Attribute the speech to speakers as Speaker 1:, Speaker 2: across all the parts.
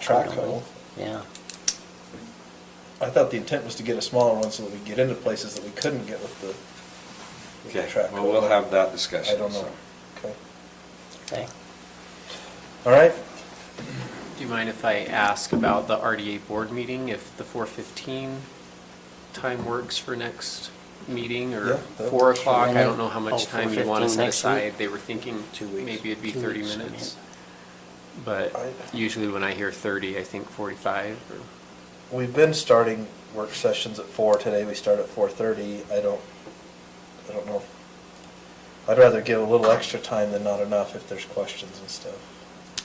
Speaker 1: Track
Speaker 2: track
Speaker 1: hole.
Speaker 2: hole.
Speaker 1: Yeah.
Speaker 2: I thought the intent was to get a smaller one so that we get into places that we couldn't get with the, with the
Speaker 3: Okay,
Speaker 2: track.
Speaker 3: well, we'll
Speaker 2: hole.
Speaker 3: have that discussion.
Speaker 2: I don't know.
Speaker 3: so.
Speaker 2: Okay.
Speaker 1: Okay.
Speaker 2: All right.
Speaker 4: Do you mind if I ask about the RDA board meeting, if the 4:15 time works for next meeting,
Speaker 2: Yeah,
Speaker 4: or
Speaker 2: that
Speaker 4: 4
Speaker 2: works for
Speaker 4: o'clock?
Speaker 1: me.
Speaker 4: I don't know how
Speaker 1: Oh,
Speaker 4: much time you want
Speaker 1: 4:15
Speaker 4: to set
Speaker 1: next week?
Speaker 4: aside. They were thinking
Speaker 1: Two weeks.
Speaker 4: maybe it'd be
Speaker 1: Two
Speaker 4: 30
Speaker 1: weeks, I
Speaker 4: minutes.
Speaker 1: mean.
Speaker 4: But
Speaker 2: I-
Speaker 4: usually when I hear 30, I think 45 or,
Speaker 2: We've been starting work sessions at four. Today we start at four thirty. I don't, I don't know. if- I'd rather give a little extra time than not enough if there's questions and stuff.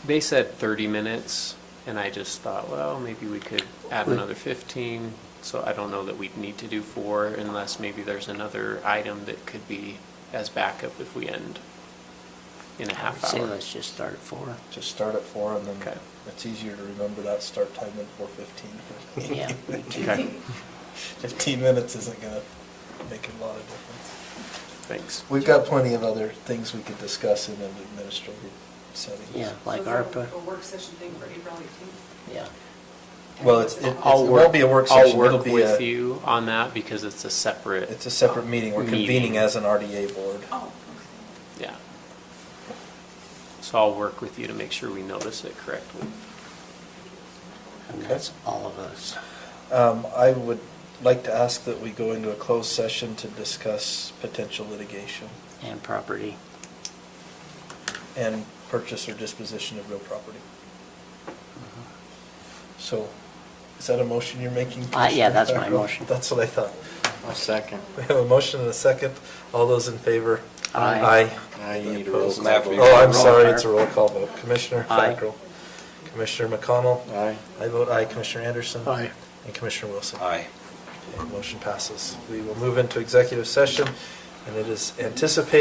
Speaker 4: they said 30 minutes, and I just thought, well, maybe we could add
Speaker 1: We-
Speaker 4: another 15. So I don't know that we'd need to do 4 unless maybe there's another item that could be as backup if we end in a half
Speaker 1: Say
Speaker 4: hour.
Speaker 1: let's just start at four.
Speaker 2: Just start at four and then
Speaker 4: Okay.
Speaker 2: it's easier to remember that start time than four fifteen.
Speaker 1: Yeah. me too.
Speaker 4: Okay,
Speaker 2: Fifteen minutes isn't gonna make a lot of difference.
Speaker 4: thanks.
Speaker 2: We've got plenty of other things we could discuss in an administrative setting.
Speaker 1: Yeah, like
Speaker 5: So is that
Speaker 1: ARPA.
Speaker 5: A work session thing for April eighteenth?
Speaker 1: Yeah.
Speaker 2: Well, it's, it it
Speaker 4: I'll
Speaker 2: won't
Speaker 4: work-
Speaker 2: be a work session.
Speaker 4: I'll
Speaker 2: It'll
Speaker 4: work
Speaker 2: be
Speaker 4: with
Speaker 2: a-
Speaker 4: you on that because it's a separate. uh,
Speaker 2: It's a separate meeting. We're convening
Speaker 4: meeting.
Speaker 2: as an RDA board.
Speaker 5: Oh,
Speaker 4: Yeah. So I'll work with you to make sure we notice it correctly.
Speaker 1: And
Speaker 2: Okay.
Speaker 1: that's all of us.
Speaker 2: Um, I would like to ask that we go into a closed session to discuss potential litigation
Speaker 1: And property.
Speaker 2: and purchase or disposition of real property.
Speaker 1: Mm-hmm.
Speaker 2: So, is that a motion you're making?
Speaker 1: Uh, yeah,
Speaker 2: Commissioner
Speaker 1: that's my
Speaker 2: Fackrell?
Speaker 1: motion.
Speaker 2: That's what I thought.
Speaker 6: I'll second.
Speaker 2: We have a motion and a second. All those in favor?
Speaker 1: Aye.
Speaker 2: Aye.
Speaker 6: Now you
Speaker 2: Any
Speaker 6: need to roll
Speaker 2: opposed?
Speaker 3: call vote.
Speaker 2: Oh, I'm sorry, it's a roll call vote. Commissioner
Speaker 1: Aye.
Speaker 2: Fackrell. Commissioner McConnell.
Speaker 6: Aye.
Speaker 2: I vote aye. Commissioner Anderson.
Speaker 1: Aye.
Speaker 2: And Commissioner Wilson.
Speaker 3: Aye.
Speaker 2: Okay, Motion passes. We will move into executive session, and it is anticipated